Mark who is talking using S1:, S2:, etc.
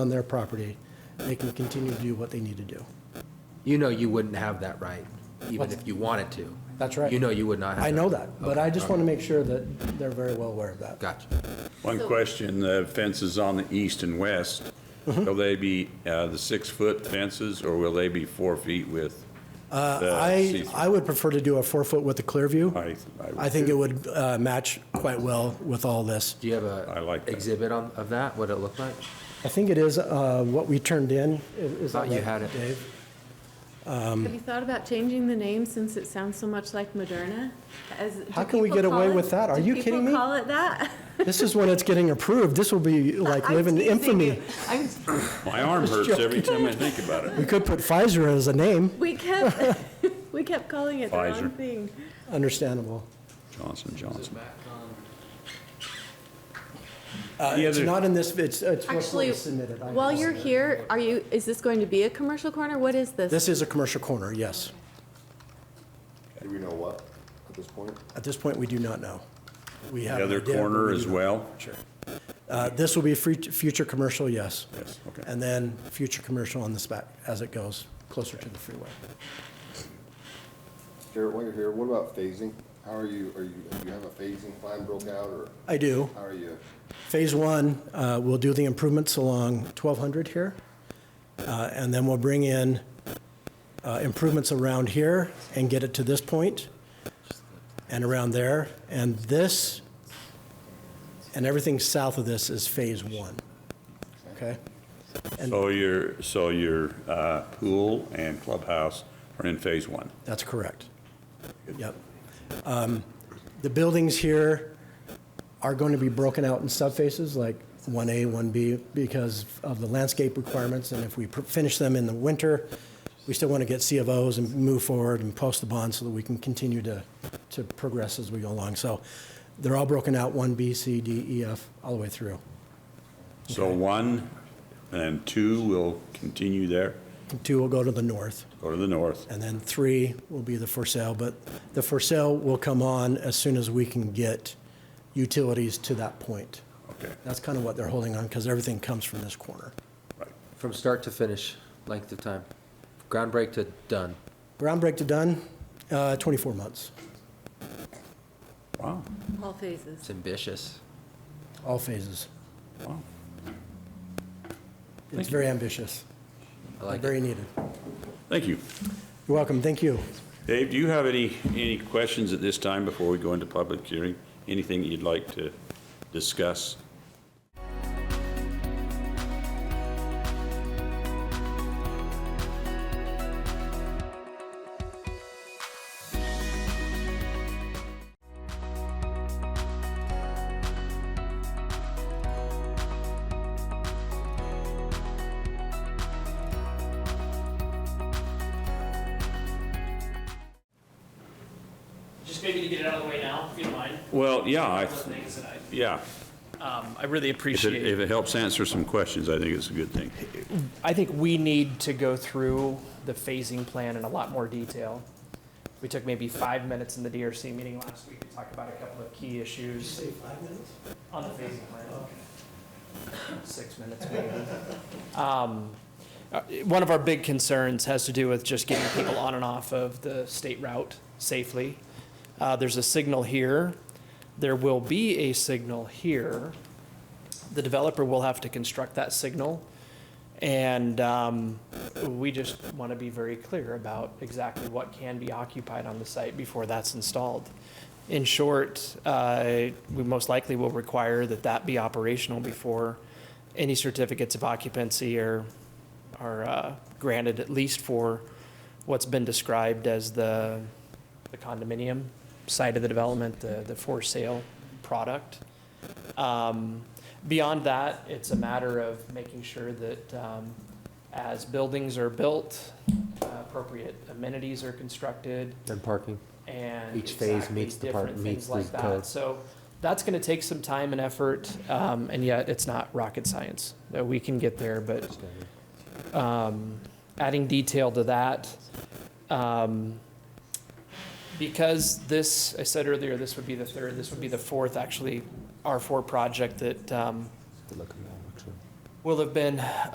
S1: on their property, they can continue to do what they need to do.
S2: You know you wouldn't have that right, even if you wanted to.
S1: That's right.
S2: You know you would not have.
S1: I know that, but I just
S2: Okay,
S1: want to make sure that they're very well aware of that.
S2: Gotcha.
S3: One question, the fences on the east and west,
S1: Mm-hmm.
S3: will they be uh, the six-foot fences, or will they be four feet with? the
S1: Uh, I,
S3: see-through?
S1: I would prefer to do a four-foot with a clear view.
S3: I- I would
S1: I think
S3: too.
S1: it would uh, match quite well with all this.
S2: Do you have
S3: I
S2: a
S3: like that.
S2: exhibit on, of that, what it looked like?
S1: I think it is uh, what we turned in. I- Is that
S2: Thought you
S1: right,
S2: had it.
S1: Dave?
S4: Have you thought about changing the name since it sounds so much like Moderna? As- do
S1: How can we
S4: people
S1: get
S4: call
S1: away
S4: it-
S1: with that? Are
S4: do
S1: you
S4: people
S1: kidding me?
S4: call it that?
S1: This is when it's getting approved. This will be like
S4: I'm
S1: living
S4: teasing
S1: infamy.
S4: you. I'm-
S3: My arm hurts every time I think about it.
S1: We could put Pfizer as a name,
S4: We kept, we kept calling it the wrong
S3: Pfizer.
S4: thing.
S1: understandable.
S3: Johnson, Johnson.
S1: Uh,
S3: The
S1: It's
S3: other-
S1: not in this, it's, it's what's
S4: Actually,
S1: submitted. I-
S4: while you're here, are you, is this going to be a commercial corner? What is this?
S1: This is a commercial corner, yes.
S5: Do we know what at this point?
S1: At this point, we do not know. We have.
S3: The
S1: an
S3: other
S1: idea, but
S3: corner
S1: we do
S3: as
S1: not-
S3: well?
S1: Sure. Uh, This will be fut- future commercial, yes.
S3: Yes, okay.
S1: And then future commercial on this back as it goes closer to the freeway.
S5: Garrett, while you're here, what about phasing? How are you, are you, do you have a phasing plan broke out, or
S1: I do.
S5: how are you?
S1: Phase one, uh, we'll do the improvements along 1200 here, uh, and then we'll bring in uh, improvements around here and get it to this point and around there. And this, and everything south of this is phase one. Okay?
S3: So your, so your uh, pool and clubhouse are in phase one.
S1: That's correct. Yep. Um, The buildings here are going to be broken out in subfaces, like 1A, 1B, because of the landscape requirements, and if we pr- finish them in the winter, we still want to get C of Os and move forward and post the bond so that we can continue to, to progress as we go along. So they're all broken out, 1B, C, D, E, F, all the way through.
S3: So one and two will continue there,
S1: Two will go to the north.
S3: go to the north.
S1: And then three will be the for sale, but the for sale will come on as soon as we can get utilities to that point.
S3: Okay,
S1: That's kind of what they're holding on, because everything comes from this corner.
S3: right.
S2: From start to finish, length of time, ground break to done.
S1: Ground break to done, uh, 24 months,
S3: Wow,
S4: All phases.
S2: It's ambitious.
S1: all phases.
S3: wow.
S1: It's very ambitious,
S2: I
S1: but
S2: like it.
S1: very needed.
S3: Thank you.
S1: You're welcome, thank you.
S3: Dave, do you have any, any questions at this time before we go into public hearing? Anything that you'd like to discuss?
S6: Just maybe to get it out of the way now, if you don't mind.
S3: Well, yeah, I,
S6: One of the things that I-
S3: yeah.
S6: Um, I really
S3: If it,
S6: appreciate
S3: if it helps answer some questions, I think it's a good thing.
S6: I think we need to go through the phasing plan in a lot more detail. We took maybe five minutes in the DRC meeting last week to talk about a couple of key issues. On the phasing plan. Six minutes maybe. Um, uh, One of our big concerns has to do with just getting people on and off of the state route safely. Uh, There's a signal here. There will be a signal here. The developer will have to construct that signal. And um, we just want to be very clear about exactly what can be occupied on the site before that's installed. In short, uh, we most likely will require that that be operational before any certificates of occupancy are, are uh, granted, at least for what's been described as the the condominium side of the development, the, the for sale product. Um, Beyond that, it's a matter of making sure that um, as buildings are built, uh, appropriate amenities are constructed
S2: And parking.
S6: and.
S2: Each phase
S6: exactly
S2: meets the part-
S6: different
S2: meets
S6: things like
S2: the
S6: that.
S2: code.
S6: So that's going to take some time and effort, um, and yet it's not rocket science. Uh, We can get there, but um, adding detail to that. um, Because this, I said earlier, this would be the third, this would be the fourth, actually, R4 project that um,
S2: Good looking, actually.
S6: will have been